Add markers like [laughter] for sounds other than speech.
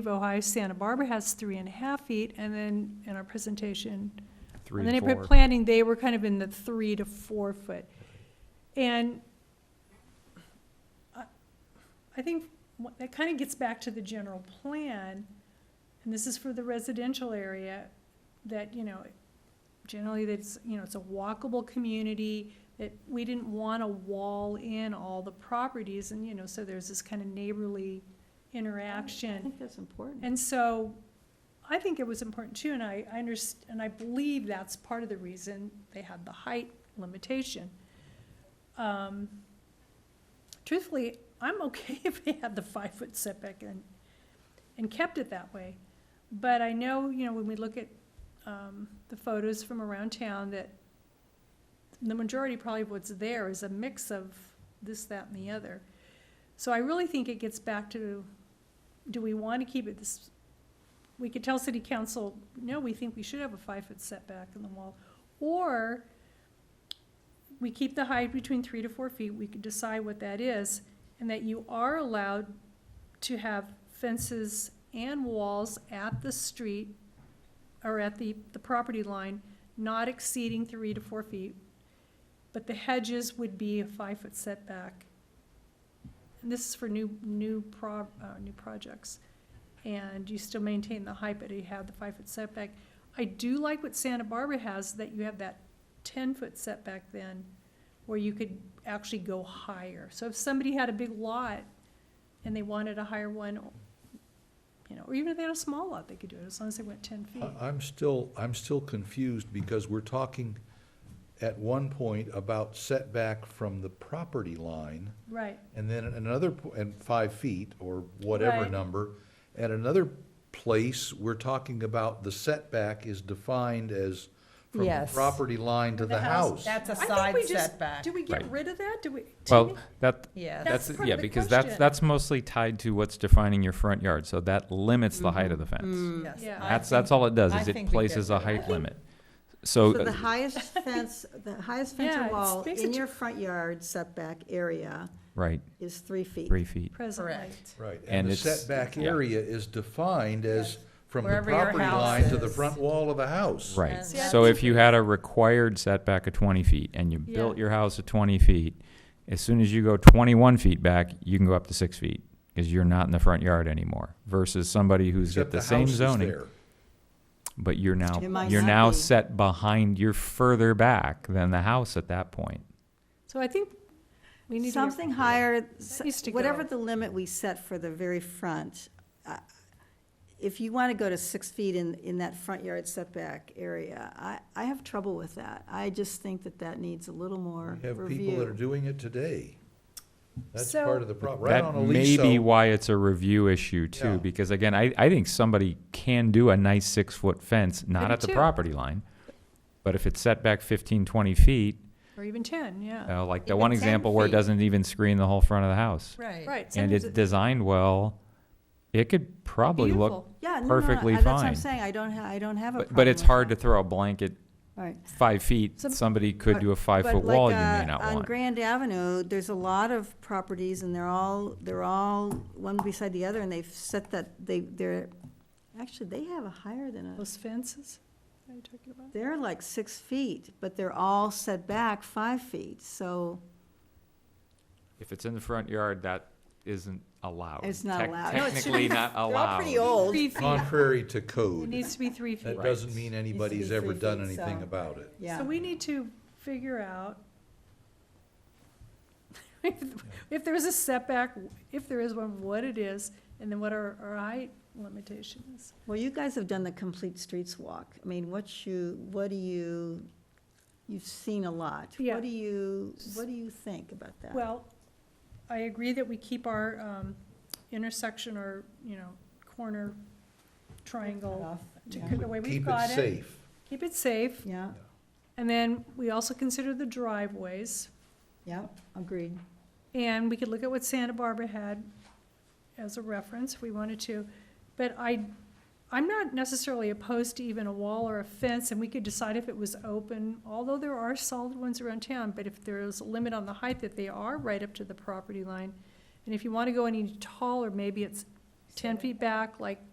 of Ohio, Santa Barbara has three and a half feet, and then in our presentation, three on the and neighborhood four. planning, they were kind of in the three to four foot. And I I think what- that kind of gets back to the general plan, and this is for the residential area, that, you know, generally that's, you know, it's a walkable community, that we didn't want to wall in all the properties, and, you know, so there's this kind of neighborly interaction. I think that's important. And so I think it was important too, and I, I underst, and I believe that's part of the reason they had the height limitation. Um, Truthfully, I'm [laughs] okay if they had the five-foot setback and, and kept it that way. But I know, you know, when we look at, um, the photos from around town, that the majority probably of what's there is a mix of this, that, and the other. So I really think it gets back to, do we want to keep it this, we could tell city council, no, we think we should have a five-foot setback in the wall. Or we keep the height between three to four feet, we could decide what that is, and that you are allowed to have fences and walls at the street or at the, the property line, not exceeding three to four feet. But the hedges would be a five-foot setback. And this is for new, new pro, uh, new projects. And you still maintain the height, but you have the five-foot setback. I do like what Santa Barbara has, that you have that ten-foot setback then, where you could actually go higher. So if somebody had a big lot and they wanted a higher one, you know, or even if they had a small lot, they could do it, as long as they went ten feet. I- I'm still, I'm still confused because we're talking at one point about setback from the property line, Right, and then at another, po- and five feet or whatever Right. number. At another place, we're talking about the setback is defined as from the Yes. property line to the house. That's a I think side we just- setback, Do we get Right. rid of that? Do we? Well, that, yes. That's that's, part of yeah, the because that's, question. that's mostly tied to what's defining your front yard, so that limits the height of the fence. Yes. Yeah. I That's, think- that's all it does, I is it think we places did a that. height limit. So, [laughs] So the uh, highest fence, the highest fence Yeah, or it's wall in basically- your front yard setback area right, is three feet. three feet, Presently. Correct. Right, And and the it's- setback yeah. area is defined as from the Wherever your property house line to the is. front wall of a house. right. And- See, I So if think- you had a required setback of twenty feet and you Yeah. built your house at twenty feet, as soon as you go twenty-one feet back, you can go up to six feet, because you're not in the front yard anymore, versus somebody who's got Except the the same house is zoning. there. But you're now, It might you're not now be. set behind, you're further back than the house at that point. So I think we need to. get- Something higher, s- That used to whatever go. the limit we set for the very front. I- If you want to go to six feet in, in that front yard setback area, I, I have trouble with that. I just think that that needs a little more We have people that are review. doing it today. That's So- part of the problem, right That on a may be lease, why it's a review issue Yeah. too, because again, I, I think somebody can do a nice six-foot fence, not do at the too. property line. But if it's set back 15, 20 feet, Or even ten, yeah. uh, like the Even one 10 example where it feet. doesn't even screen the whole front of the house. Right. Right. And sometimes it's it- designed well, it could probably look, beautiful. Yeah, no, no, perfectly I- That's what fine. I'm saying, I don't, ha- I don't have a but, problem. but it's with hard to that. throw a blanket All right. five feet. Some- Somebody could but- do a But five-foot like, wall you may uh, not On want. Grand Avenue, there's a lot of properties and they're all, they're all one beside the other and they've set that, they, they're, actually, they have a higher than us. Those fences, are you talking about? They're like six feet, but they're all set back five feet, so If it's in the front yard, that isn't allowed. It's not Oh, Tec- allowed. No, it should [laughs] Technically not they're all pretty allowed. old. Three feet, contrary to it code. needs to be three feet. That doesn't mean to be anybody's ever three done feet, anything so- about it. Yeah, So we need to figure out [laughs] if, if there's a setback, if there is one, what it is, and then what our, our height limitation is. well, you guys have done the complete streets walk. I mean, what you, what do you, you've seen a lot. Yeah. What do you, what do you think about that? Well, I agree that we keep our um, intersection or, you know, corner triangle to Yeah. the way we've Keep got it it. safe. Keep it safe. Yeah, And then we also consider the driveways. yeah, agreed. And we could look at what Santa Barbara had as a reference if we wanted to. But I, I'm not necessarily opposed to even a wall or a fence, and we could decide if it was open, although there are solid ones around town, but if there is a limit on the height that they are right up to the property line, and if you want to go any taller, maybe it's ten feet back, like